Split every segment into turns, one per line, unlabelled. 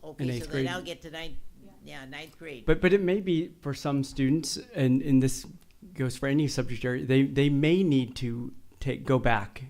whole
In
piece
eighth
of
grade.
that. I'll get to ninth, yeah, ninth grade.
But but it may be for some students, and and this goes for any subject area. They they may need to take go back,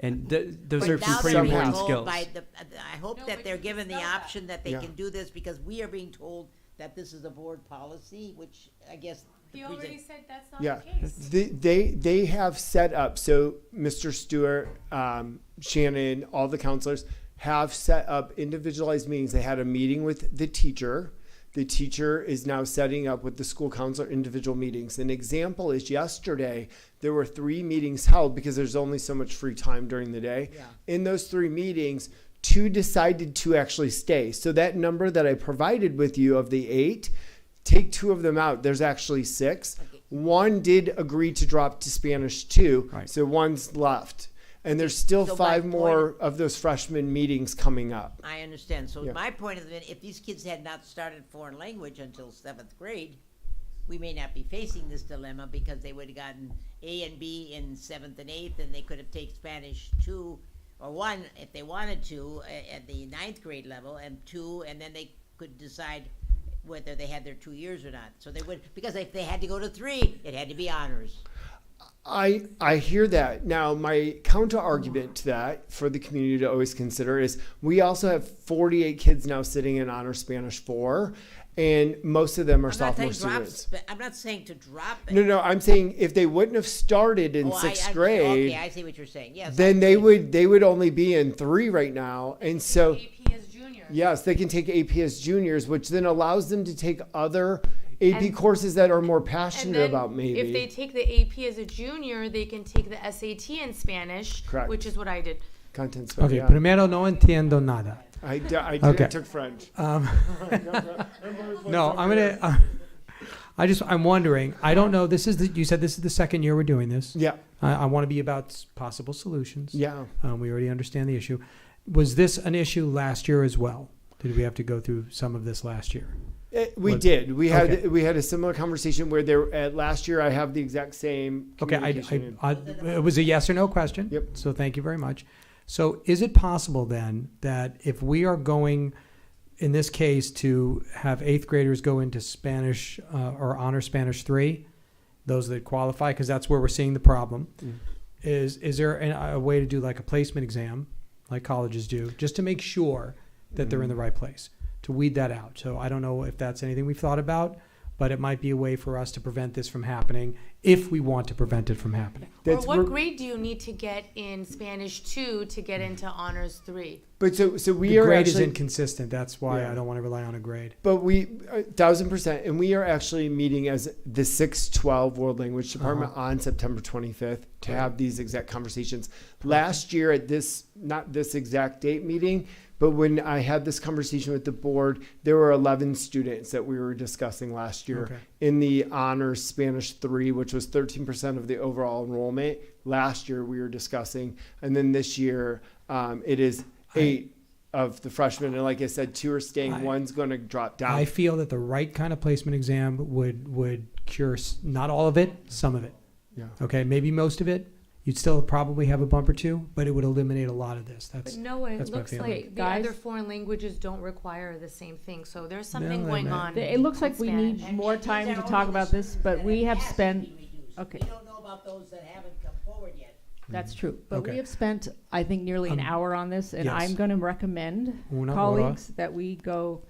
and th- those
But
are some
now
pretty
they're
Somehow.
important
told
skills.
by the- I hope that
Nobody
they're given the
knows that.
option that they
Yeah.
can do this, because we are being told that this is a board policy, which I guess. the
He already
present-
said that's not
Yeah,
the case.
The- they they have set up so Mr. Stewart, um, Shannon, all the counselors have set up individualized meetings. They had a meeting with the teacher. The teacher is now setting up with the school counselor individual meetings. An example is yesterday there were three meetings held because there's only so much free time during the day.
Yeah.
In those three meetings, two decided to actually stay. So that number that I provided with you of the eight, take two of them out. There's actually six.
Okay.
One did agree to drop to Spanish two,
Right.
so one's left. And there's still
So
five
my
more of those freshman meetings coming up.
I understand. So
Yeah.
my point is that if these kids had not started foreign language until seventh grade, we may not be facing this dilemma because they would have gotten A and B in seventh and eighth, and they could have taken Spanish two or one if they wanted to a- at the ninth grade level, and two, and then they could decide whether they had their two years or not. So they would because if they had to go to three, it had to be honors.
I I hear that. Now my counter argument to that for the community to always consider is we also have 48 kids now sitting in honor Spanish 4 and most of them are
I'm not
sophomore
saying drop.
students.
Sp- I'm not saying to drop it.
No, no, I'm saying if they wouldn't have started in
Oh, I-
6th
I-
grade,
Okay, I see what you're saying. Yes.
then
I
they
see.
would they would only be in 3 right now. And so
AP is junior.
Yes, they can take AP as juniors, which then allows them to take other AP courses that are more
And
passionate
then
about maybe.
if they take the AP as a junior, they can take the SAT in Spanish,
Correct.
which is what I did.
Content spec,
Ok,
yeah.
primero no entiendo nada.
I, d- I, did,
Okay.
I took French.
Um, no, I'm gonna. Uh, I just I'm wondering. I don't know. This is the, you said this is the second year we're doing this.
Yeah,
I, I want to be about s- possible solutions.
yeah.
Um, we already understand the issue. Was this an issue last year as well? Did we have to go through some of this last year?
It- Eh, we
What-
did. We had
okay.
we had a similar conversation where there at last year I have the exact same.
Okay, I,
communication.
I, I, it was a yes or no question.
Yep.
So thank you very much. So is it possible then that if we are going, in this case, to have eighth graders go into Spanish uh, or honor Spanish three, those that qualify, because that's where we're seeing the problem, is is there an, a way to do like a placement exam, like colleges do, just to make sure that they're in
Mm.
the right place to weed that out. So I don't know if that's anything we've thought about, but it might be a way for us to prevent this from happening if we want to prevent it from happening.
That's
or what
re-
grade do you need to get in Spanish two to get into honors three?
but so so we
the
are
grade is
actually
inconsistent. That's why
Yeah.
I don't want to rely on a grade.
But we, a thousand percent, and we are actually meeting as the six twelve World Language Department on September twenty fifth to have these exact conversations. Last year at this, not this exact date meeting, but when I had this conversation with the board, there were eleven students that we were discussing last year
Okay.
in the honors Spanish three, which was thirteen percent of the overall enrollment. Last year we were discussing, and then this year um, it is
I-
eight. of the freshmen, and like I said, two are staying,
I-
one's going to drop down.
I feel that the right kind of placement exam would would cure s- not all of it, some of it.
Yeah.
Okay, maybe most of it. You'd still probably have a bump or two, but it would eliminate a lot of this. That's
But no, it
That's my looks
looks
feeling.
like
like
the
guys-
other foreign languages don't require the same thing. So there's
No,
something
they
going
might.
on.
It looks like we
Spanish.
need more
These
time
are
to
only
talk
the
about this,
students
but
that
we
have
have
asked to
spent,
be reduced.
okay.
We don't know about those that haven't come forward yet.
that's true, but
Okay.
we have spent, I think, nearly an
Um,
hour on this, and
yes.
I'm going to recommend
Una hora.
colleagues that we go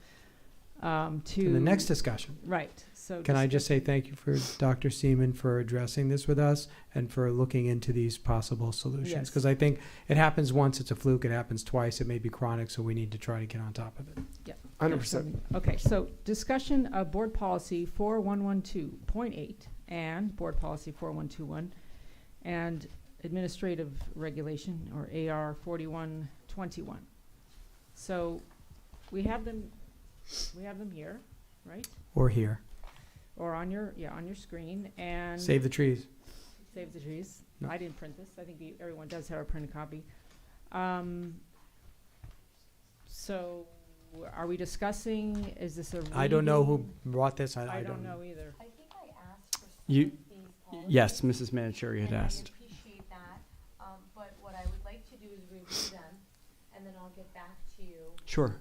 um, to.
in the next discussion.
Right, so.
Can I
discuss-
just say thank you for Dr. Seaman for addressing this with us and for looking into these possible solutions?
Yes.
Because I think it happens once, it's a fluke, it happens twice, it may be chronic, so we need to try to get on top of it.
Hundred percent.
Okay, so discussion of board policy four one one two point eight and board policy four one two one and administrative regulation or AR forty-one twenty-one. So we have them, we have them here, right?
Or here.
Or on your, yeah, on your screen and.
Save the trees.
Save the trees.
No.
I didn't print this. I think you- everyone does have a printed copy. Um, so are we discussing, is this a?
I don't know who
reading?
brought this, I,
I don't know either.
I think I asked for
You-
these
Yes, Mrs. Manicheri had
and I
asked.
appreciate that, um, but what I would like to do is review them, and then I'll get back to you
Sure.